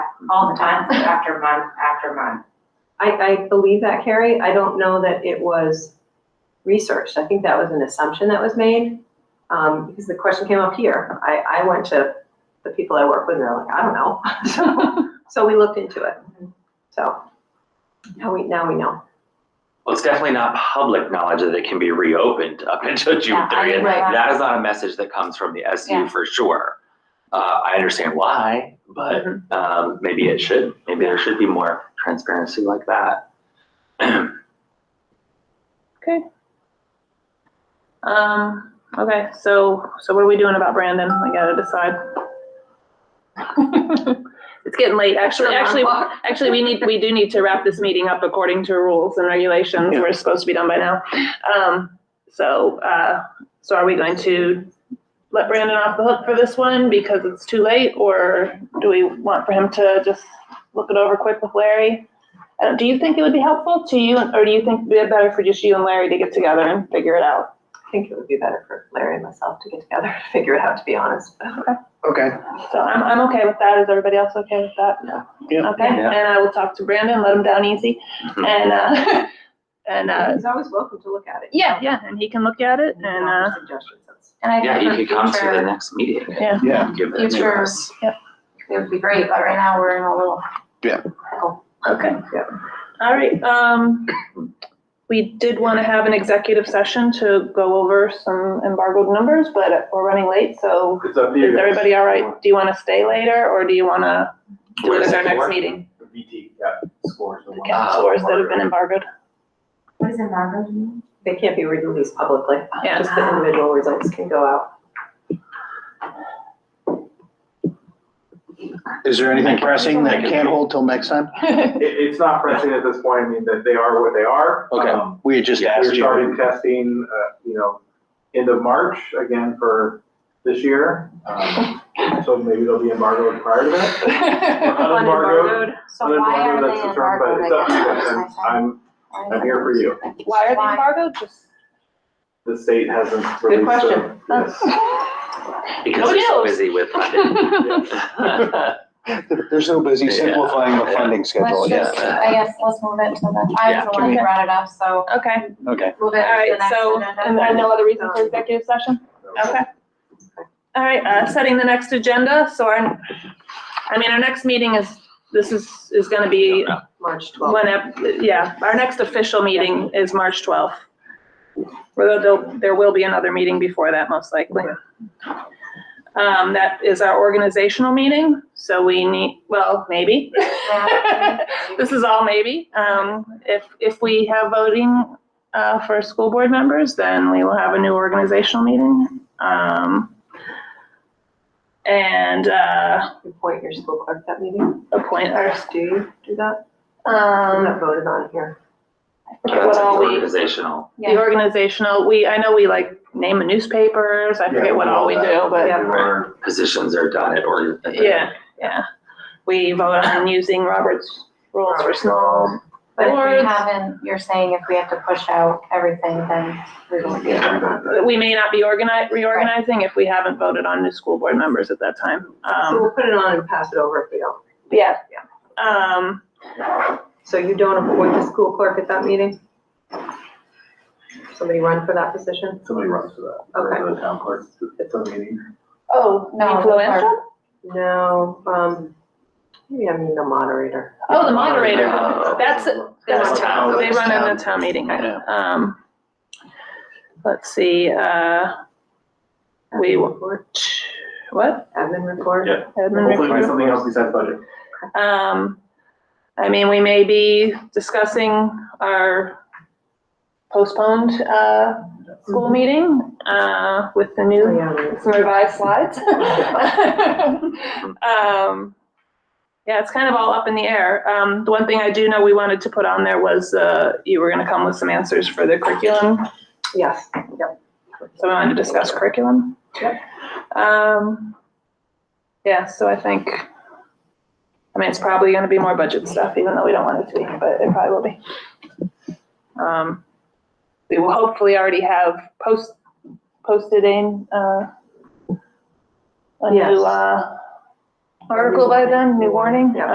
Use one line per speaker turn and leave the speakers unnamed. all the time.
month after month after month.
I, I believe that, Carrie. I don't know that it was researched. I think that was an assumption that was made. Um, because the question came up here. I, I went to the people I work with and they're like, I don't know. So, so we looked into it. So now we, now we know.
Well, it's definitely not public knowledge that it can be reopened up until June
Yeah, I
thirtieth.
mean, right.
That is not a message that comes from the
Yeah.
SU for sure. Uh, I understand why, but,
Mm-hmm.
um, maybe it should, maybe there should be more transparency like that.
Um, okay, so, so what are we doing about Brandon? I gotta decide. It's getting late, actually, actually, actually, we need, we do need to wrap this meeting up according to rules and regulations. We're supposed to be done by now. Um, so, uh, so are we going to let Brandon off the hook for this one because it's too late? Or do we want for him to just look it over quick with Larry? Uh, do you think it would be helpful to you, or do you think it'd be better for just you and Larry to get together and figure it out?
I think it would be better for Larry and myself to get together and figure it out, to be honest.
Okay,
So I'm, I'm okay with that. Is everybody else okay with that?
Yeah.
Yeah.
Okay,
Yeah.
and I will talk to Brandon, let him down easy,
Mhm.
and, uh, and, uh,
He's always welcome to look at it.
yeah, yeah, and he can look at it,
And
and,
offer
uh,
suggestions. That's-
And I
Yeah,
think
you
for
could come to the
future-
next meeting
Yeah.
and
yeah,
give it to
Future-
us.
It would be great, but right now we're in a little.
Yeah.
pickle.
okay. All right, um, we did want to have an executive session to go over some embargoed numbers, but we're running late, so
It's up to you.
is everybody all right? Do you want to stay later, or do you want to do it
Where's Uh,
at our
it
next
for?
meeting?
The VT got scores. the one-
Cat scores that have been embargoed.
What is embargo mean?
They can't be released publicly.
Yeah.
Just the individual results can go out.
is there anything pressing that can't hold till next time?
It, it's not pressing at this point, I mean, that they are what they are.
Okay.
Um,
We had just
We're
asked you.
starting testing, uh, you know, end of March again for this year. Um, So maybe they'll be embargoed prior to that. Unembargoed,
So why are they
unembargoed, that's the term, but
embargoed?
it's up to you.
I guess is my
I'm- I'm, I'm here for you.
thing.
Why are they embargoed? Just
The state hasn't released
question.
them. Yes.
Because
Nobody
they're so
else.
busy with funding.
They're so busy
Yeah.
simplifying the funding schedule,
Let's
yeah,
just, I guess, let's move it to the, I
Yeah,
was the
can
one
we-
who brought it up, so
Okay.
okay.
move it to
All right,
the next
so,
agenda.
and there's no other reason for executive session? Okay. All right, uh, setting the next agenda, so our, I mean, our next meeting is, this is, is gonna be
March 12th.
whenever, yeah, our next official meeting is March twelfth. Although there'll, there will be another meeting before that, most likely. Um, that is our organizational meeting, so we need, well, maybe. This is all maybe. Um, if, if we have voting, uh, for school board members, then we will have a new organizational meeting. Um, and, uh,
Appoint your school clerk that meeting.
appoint our,
Do you do that? I'm
um,
not voted on here.
That's
what all we.
organizational.
The organizational, we, I know we like name the newspapers, I forget what all we do, but
Yeah.
Our Positions are done at or. at the-
yeah, yeah. We vote on using Robert's rules for small.
But if
Boards.
we haven't, you're saying if we have to push out everything, then we won't be.
uh,
We may not be organized, reorganizing if we haven't voted on new school board members at that time.
So
Um,
we'll put it on and pass it over if we don't.
yeah, um,
So you don't appoint the school clerk at that meeting? Somebody run for that position?
Somebody runs for that.
Okay.
The town clerk, it's a meeting.
oh,
No,
influential?
No, um, maybe I mean the moderator.
Oh, the moderator, that's,
That's
that's
town.
town, they run in
That's town.
the town meeting.
Yeah.
Um, let's see, uh, we,
Admin report.
what?
Admin report?
Yeah.
Admin
Hopefully it'll be
report?
something else besides budget.
Um, I mean, we may be discussing our postponed, uh, school meeting, uh, with the
Oh,
new,
yeah, I mean,
some revised slides. Um, yeah, it's kind of all up in the air. Um, the one thing I do know we wanted to put on there was, uh, you were gonna come with some answers for the curriculum
Yes, yep.
so we wanted to discuss curriculum. Um, yeah, so I think, I mean, it's probably gonna be more budget stuff, even though we don't want it to be, but it probably will be. Um, we will hopefully already have post, posted in, uh, a
Yes.
new, uh, article by then, new warning,
Yeah.